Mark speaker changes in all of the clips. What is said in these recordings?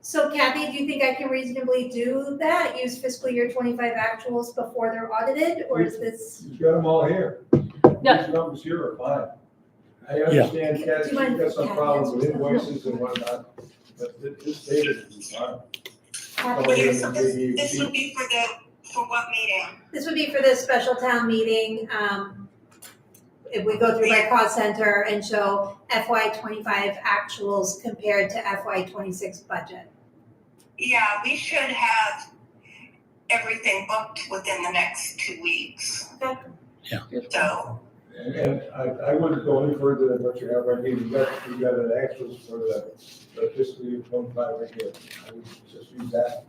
Speaker 1: So Kathy, do you think I can reasonably do that? Use fiscal year twenty-five actuals before they're audited, or is this?
Speaker 2: She's got them all here.
Speaker 3: Yeah.
Speaker 2: These numbers here are fine. I understand
Speaker 1: Yeah.
Speaker 2: Kathy, she's got some problems with invoices and whatnot, but thi- this data is fine.
Speaker 1: Kathy,
Speaker 2: Okay.
Speaker 4: This, this would be for the, for what meeting?
Speaker 1: This would be for the special town meeting, um, if we go through by cost center and show FY twenty-five actuals compared to FY twenty-six budget.
Speaker 4: Yeah, we should have everything booked within the next two weeks.
Speaker 1: Okay.
Speaker 5: Yeah.
Speaker 4: So,
Speaker 2: And, and I, I wouldn't go any further than what you have right here, you got, you got an actuals for the, the fiscal year twenty-five right here. I would just use that.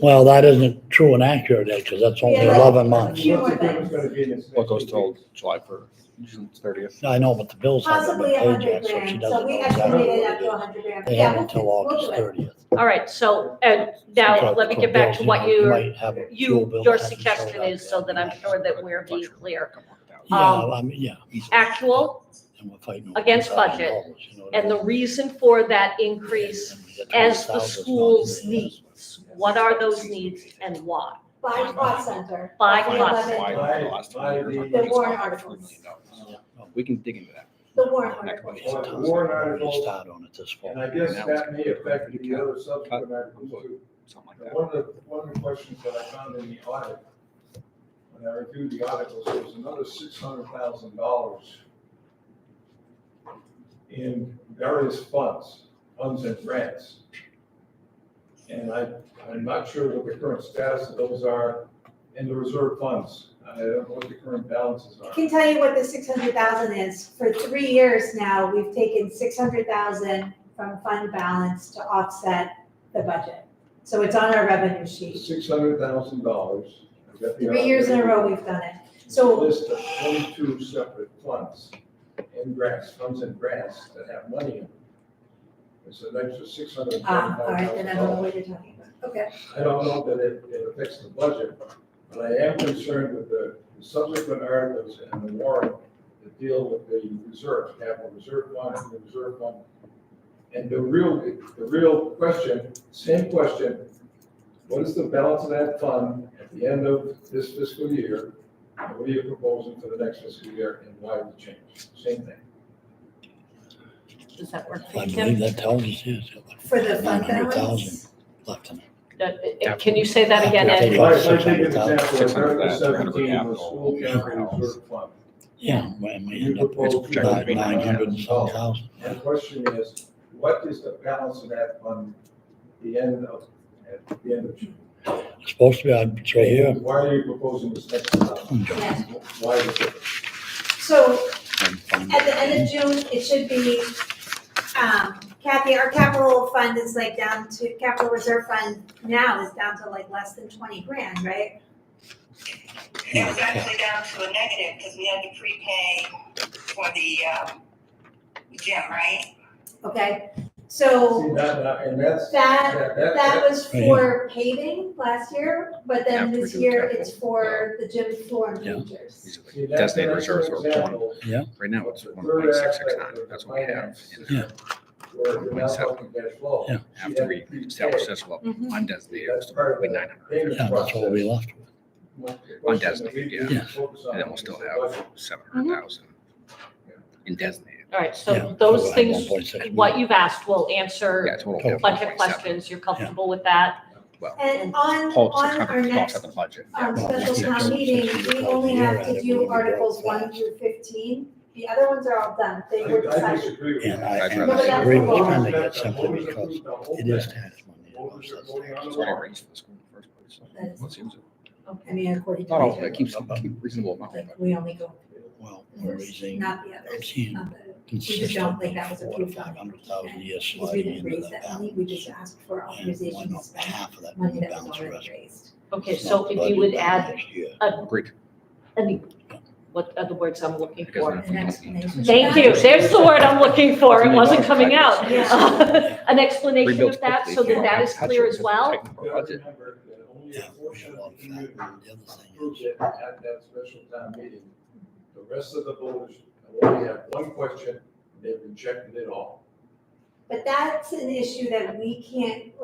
Speaker 5: Well, that isn't true and accurate, because that's only
Speaker 1: Yeah.
Speaker 5: eleven months.
Speaker 1: Few more
Speaker 2: What's the difference gonna be in this
Speaker 6: What
Speaker 2: next
Speaker 6: goes
Speaker 2: week?
Speaker 6: till July first, June thirtieth?
Speaker 5: I know, but the bills haven't
Speaker 1: Possibly
Speaker 5: been
Speaker 1: a
Speaker 5: paid
Speaker 1: hundred
Speaker 5: yet, so she
Speaker 1: grand,
Speaker 5: doesn't
Speaker 1: so
Speaker 5: know
Speaker 1: we
Speaker 5: exactly.
Speaker 1: estimated up to a hundred grand.
Speaker 5: They
Speaker 1: Yeah,
Speaker 5: have
Speaker 1: we'll
Speaker 5: until
Speaker 1: fix- we'll
Speaker 5: August
Speaker 1: do it.
Speaker 5: thirtieth.
Speaker 3: All right, so, uh, now, let me get back to what you, you, your suggestion is, so that I'm sure that we're being clear.
Speaker 5: Yeah,
Speaker 3: um,
Speaker 5: I mean, yeah.
Speaker 3: Actual,
Speaker 5: And we're fighting over
Speaker 3: against budget,
Speaker 5: $1,000, you know what I
Speaker 3: and the
Speaker 5: mean?
Speaker 3: reason for that increase
Speaker 5: And we get
Speaker 3: as the
Speaker 5: $20,000 is not
Speaker 3: school's
Speaker 5: even-
Speaker 3: needs. What are those needs and why?
Speaker 1: By cost center.
Speaker 3: By
Speaker 1: The
Speaker 3: cost.
Speaker 1: 11 The warrant articles.
Speaker 5: Yeah, no,
Speaker 6: We can dig into that.
Speaker 1: The warrant
Speaker 6: Next
Speaker 1: articles.
Speaker 5: it's a
Speaker 2: Well,
Speaker 5: tough
Speaker 2: the warrant
Speaker 5: one. We're gonna
Speaker 2: article-
Speaker 5: Start on it this fall.
Speaker 2: And I guess that may affect the other subsequent articles too.
Speaker 6: Something like
Speaker 2: And
Speaker 6: that.
Speaker 2: One of the, one of the questions that I found in the audit, when I reviewed the articles, there was another six hundred thousand dollars in various funds, funds and grants. And I, I'm not sure what the current status of those are in the reserve funds. I don't know what the current balances
Speaker 1: I
Speaker 2: are.
Speaker 1: can tell you what the six hundred thousand is. For three years now, we've taken six hundred thousand from fund balance to offset the budget. So it's on our revenue sheet.
Speaker 2: Six hundred thousand dollars.
Speaker 1: Three years in a row, we've done it. So-
Speaker 2: List of twenty-two separate funds and grants, funds and grants that have money in them. It's an extra six hundred and
Speaker 1: Ah,
Speaker 2: twenty-five
Speaker 1: all right, then
Speaker 2: thousand
Speaker 1: I don't know
Speaker 2: dollars.
Speaker 1: what you're talking about. Okay.
Speaker 2: I don't know that it, it affects the budget, but I am concerned with the subsequent articles and the warrant that deal with the reserve, capital reserve fund, and the reserve fund. And the real, the real question, same question, what is the balance of that fund at the end of this fiscal year? And what are you proposing for the next fiscal year and why the change? Same thing.
Speaker 3: Does that work for
Speaker 5: I
Speaker 3: you, Kim?
Speaker 5: believe that tells us, yes.
Speaker 1: For the fund
Speaker 5: 900,000
Speaker 1: balance?
Speaker 5: Left in it.
Speaker 3: Uh, uh, Can you say that again,
Speaker 5: Yeah.
Speaker 3: Ed?
Speaker 2: If I, if I take an example,
Speaker 6: Six
Speaker 2: of
Speaker 6: hundred
Speaker 2: Article
Speaker 6: thousand,
Speaker 2: seventeen,
Speaker 6: capital,
Speaker 2: the school capital reserve fund.
Speaker 5: Yeah, when we
Speaker 2: You
Speaker 5: end up
Speaker 2: propose
Speaker 5: with
Speaker 6: projected to
Speaker 5: about
Speaker 6: be
Speaker 5: nine hundred and some thousand.
Speaker 2: My question is, what is the balance of that fund at the end of, at the end of June?
Speaker 5: It's supposed to be, I'd say here,
Speaker 2: Why are you proposing this next amount?
Speaker 1: Yes.
Speaker 2: Why is it?
Speaker 1: So
Speaker 5: and find
Speaker 1: At the
Speaker 5: out.
Speaker 1: end of June, it should be, um, Kathy, our capital fund is like down to, capital reserve fund now is down to like less than twenty grand, right?
Speaker 4: it was actually down to a negative, because we had to prepay for the, um, gym, right?
Speaker 1: Okay, so
Speaker 2: See, that- that- and that's,
Speaker 1: that,
Speaker 2: that,
Speaker 1: that
Speaker 2: that,
Speaker 1: was for paving last year, but then
Speaker 6: Yeah,
Speaker 1: this
Speaker 6: for
Speaker 1: year
Speaker 6: capital.
Speaker 1: it's for the gym floor and
Speaker 5: Yeah.
Speaker 1: bleachers.
Speaker 6: These are
Speaker 2: see,
Speaker 6: the
Speaker 2: that-
Speaker 6: Designated
Speaker 2: that's an
Speaker 6: reserves are one,
Speaker 2: example
Speaker 6: right now it's
Speaker 2: The
Speaker 6: one
Speaker 2: third
Speaker 6: point six six nine,
Speaker 2: aspect of
Speaker 6: that's what we have.
Speaker 2: finance
Speaker 6: in
Speaker 2: is
Speaker 6: there.
Speaker 2: where we're now talking cash flow.
Speaker 5: Yeah.
Speaker 6: After we establish this level,
Speaker 3: Mhm.
Speaker 6: undesignated,
Speaker 2: That's
Speaker 6: it's
Speaker 2: part of
Speaker 6: probably
Speaker 2: the
Speaker 6: nine hundred,
Speaker 2: payment
Speaker 5: Yeah, that's what we
Speaker 2: process.
Speaker 5: left with.
Speaker 2: My
Speaker 6: On
Speaker 2: question that we
Speaker 6: designated,
Speaker 2: need to
Speaker 5: yeah.
Speaker 2: focus on
Speaker 6: and then we'll
Speaker 2: is
Speaker 6: still
Speaker 2: the
Speaker 6: have
Speaker 2: budget.
Speaker 6: seven
Speaker 3: Mm-hmm.
Speaker 6: hundred thousand in designated.
Speaker 3: All right,
Speaker 5: Yeah,
Speaker 3: so those
Speaker 5: like
Speaker 3: things,
Speaker 5: 1.6.
Speaker 3: what you've asked will
Speaker 6: Yeah,
Speaker 3: answer
Speaker 6: total.
Speaker 5: Total.
Speaker 3: a bunch of questions. You're comfortable with that?
Speaker 1: And on,
Speaker 6: Paul,
Speaker 1: on our next
Speaker 6: the budget.
Speaker 1: our
Speaker 5: Yeah.
Speaker 1: special town meeting, we only have to do articles one through fifteen. The other ones are all done, they were
Speaker 2: I I
Speaker 1: decided.
Speaker 2: disagree with
Speaker 5: And
Speaker 2: that.
Speaker 5: I,
Speaker 6: That's
Speaker 5: and
Speaker 1: right.
Speaker 5: I agree with
Speaker 1: Well,
Speaker 5: Trinity, that's simply because it is tax money. that
Speaker 2: Well,
Speaker 5: goes
Speaker 2: we're
Speaker 5: to
Speaker 2: voting
Speaker 5: the
Speaker 2: on
Speaker 6: That's
Speaker 5: tax.
Speaker 6: what I raised for the school in the first place.
Speaker 1: That's-
Speaker 6: Let's use it.
Speaker 1: I mean, according to.
Speaker 5: Oh,
Speaker 6: Not all,
Speaker 1: my-
Speaker 6: it keeps, keep reasonable amount, but
Speaker 1: We only go,
Speaker 5: Well, we're raising,
Speaker 1: not the
Speaker 5: I'm
Speaker 1: others, Uh,
Speaker 5: seeing
Speaker 1: not the, don't
Speaker 5: consistently
Speaker 1: think that was
Speaker 5: four or
Speaker 1: approved on
Speaker 5: five hundred thousand years
Speaker 1: because we
Speaker 5: sliding
Speaker 1: didn't
Speaker 5: into
Speaker 1: raise
Speaker 5: the
Speaker 1: that
Speaker 5: balance.
Speaker 1: money, we just asked for
Speaker 5: And why
Speaker 1: authorization to
Speaker 5: not
Speaker 1: spend
Speaker 5: half of that
Speaker 1: money
Speaker 5: money
Speaker 1: that was
Speaker 5: balance the
Speaker 1: already
Speaker 5: rest?
Speaker 1: raised.
Speaker 3: Okay,
Speaker 5: It's
Speaker 3: so
Speaker 5: not
Speaker 3: if you would
Speaker 5: budgeted
Speaker 3: add,
Speaker 5: next year.
Speaker 6: agreed.
Speaker 3: any, what are the words I'm looking
Speaker 6: Because
Speaker 3: for?
Speaker 6: then if we
Speaker 1: An
Speaker 6: don't need
Speaker 1: explanation.
Speaker 6: to-
Speaker 3: Thank you. There's the word I'm looking for. It wasn't coming out.
Speaker 5: Yeah.
Speaker 3: An explanation
Speaker 6: Rebuild
Speaker 3: of that so
Speaker 6: quickly,
Speaker 3: that that
Speaker 6: yeah,
Speaker 3: is
Speaker 6: touch
Speaker 3: clear
Speaker 6: it,
Speaker 3: as
Speaker 6: just
Speaker 3: well.
Speaker 6: tighten our
Speaker 2: Gotta
Speaker 6: budget.
Speaker 2: remember that only a
Speaker 5: Yeah, we
Speaker 2: portion
Speaker 5: have
Speaker 2: of
Speaker 5: all
Speaker 2: the
Speaker 5: the fact,
Speaker 2: community
Speaker 5: and the other thing
Speaker 2: approves
Speaker 5: is,
Speaker 2: it at that special town meeting. The rest of the voters only have one question, and they rejected it all.
Speaker 1: But that's an issue that we can't,